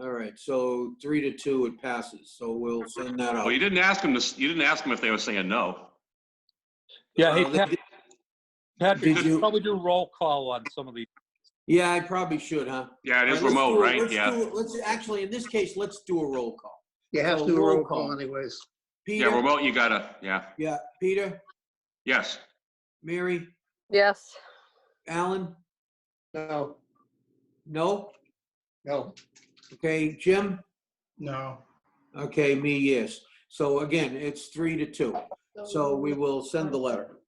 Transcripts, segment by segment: All right, so three to two, it passes, so we'll send that out. Well, you didn't ask him to, s- you didn't ask him if they were saying no. Yeah, hey, Uh, they- Pat- Patrick, Did you you- should probably do roll call on some of these. Yeah, I probably should, huh? Yeah, it is All let's remote, do- right? let's Yeah. do- Let's, actually, in this case, let's do a roll call. You have So to do a roll roll call call. anyways. Yeah, Peter, remote, you gotta, yeah, yeah, Peter, yes. Mary, Yes. Alan, No, no? no, Okay, Jim? no. Okay, me, yes. So again, it's three to two. So we will send the letter.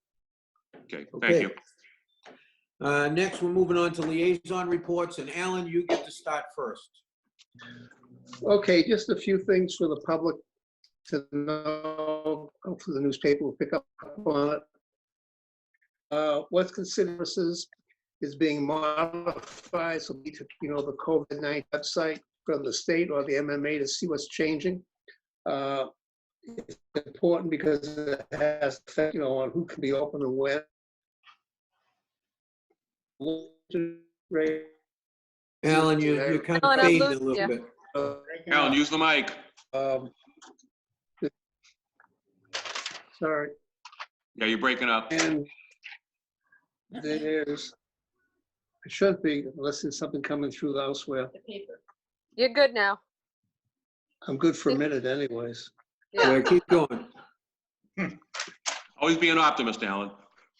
Okay, Okay. thank you. Uh, Next, we're moving on to liaison reports, and Alan, you get to start first. Okay, just a few things for the public to know. Hopefully the newspaper will pick up on it. Uh, What's considered services is being modified, so we took, you know, the COVID-19 website from the state or the MMA to see what's changing. Uh, It's important because it has, effect, you know, on who can be open and when. Alan, you- you're kind of Alan, I'm fading a losing little you. bit. Alan, use the mic. Um, Sorry, Yeah, you're breaking up. and there's, it should be, unless there's something coming through elsewhere. You're good now. I'm good for a minute anyways. Yeah. Yeah, Keep going. Always be an optimist, Alan.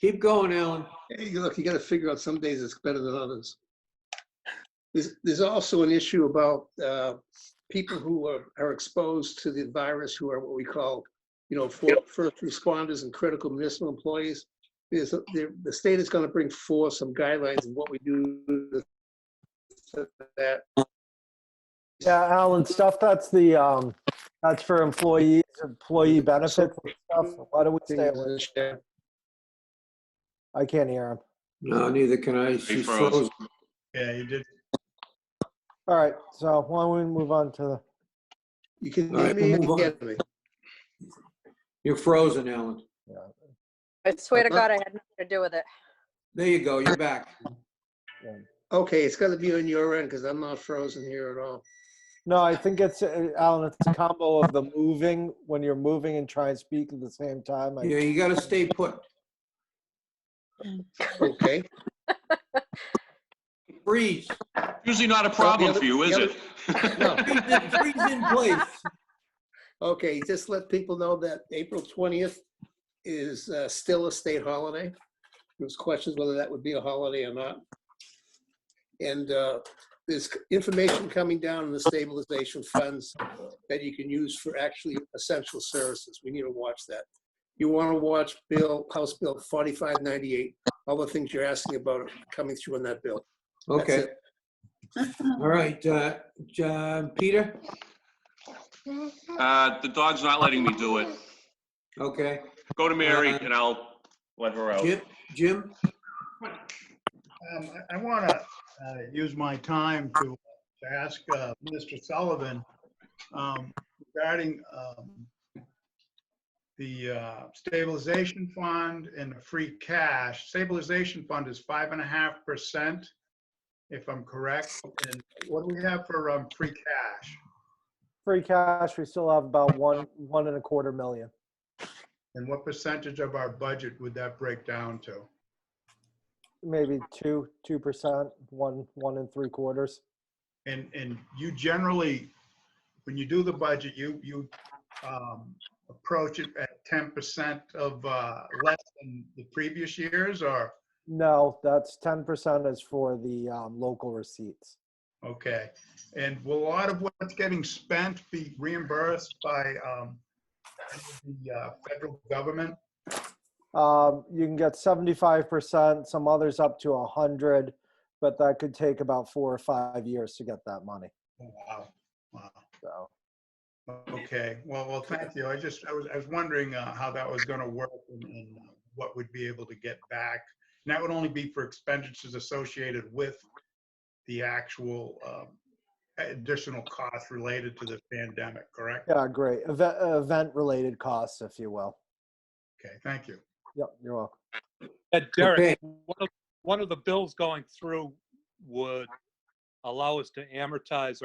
Keep going, Alan. Hey, look, you gotta figure out some days it's better than others. There's, there's also an issue about uh, people who are, are exposed to the virus, who are what we call, you know, for- first responders and critical municipal employees. There's, a- the, the state is gonna bring forth some guidelines of what we do to that. Yeah, Alan, stuff that's the, um, that's for employees, employee benefits and stuff. Why don't we stay away? I can't hear him. No, neither can I. She froze. froze. Yeah, you did. All right, so why don't we move on to the, You can All right, hear me, we'll move you on. can hear me. You're frozen, Alan. I swear to God, I had nothing to do with it. There you go, you're back. Okay, it's gotta be on your end, because I'm not frozen here at all. no, I think it's, uh, Alan, it's a combo of the moving, when you're moving and try and speak at the same time. I- Yeah, you gotta stay put. Okay, Freeze. Usually not a problem for you, is it? no. Freeze in- freeze in place. Okay, just let people know that April 20th is uh, still a state holiday. There was questions whether that would be a holiday or not. And uh, there's information coming down in the stabilization funds that you can use for actually essential services. We need to watch that. You want to watch Bill, House Bill 4598, all the things you're asking about are coming through in that bill. That's Okay, it. all right, uh, John, Peter? Uh, the dog's not letting me do it. Okay. Go to Mary and I'll let her out. Jim, Jim, Um, I want to use my time to to ask uh, Mr. Sullivan um, regarding um, the uh, stabilization fund and the free cash. Stabilization fund is five and a half percent, if I'm correct. And what do we have for um, free cash? Free cash, we still have about one, one and a quarter million. And what percentage of our budget would that break down to? maybe two, two percent, one, one and three quarters. And, and you generally, when you do the budget, you, you um, approach it at ten percent of uh, less than the previous years or, No, that's ten percent is for the um, local receipts. okay. And will a lot of what's getting spent be reimbursed by um, the uh, federal government? Um, you can get seventy-five percent, some others up to a hundred, but that could take about four or five years to get that money. Oh, Wow, wow. So Okay, well, well, thank you. I just, I was, I was wondering uh, how that was going to work and- and uh, what would be able to get back. And that would only be for expenditures associated with the actual um, additional costs related to the pandemic, correct? yeah, great. Event, event-related costs, if you will. Okay, thank you. Yep, you're welcome. Uh, Okay. Derek, one of, one of the bills going through would allow us to amortize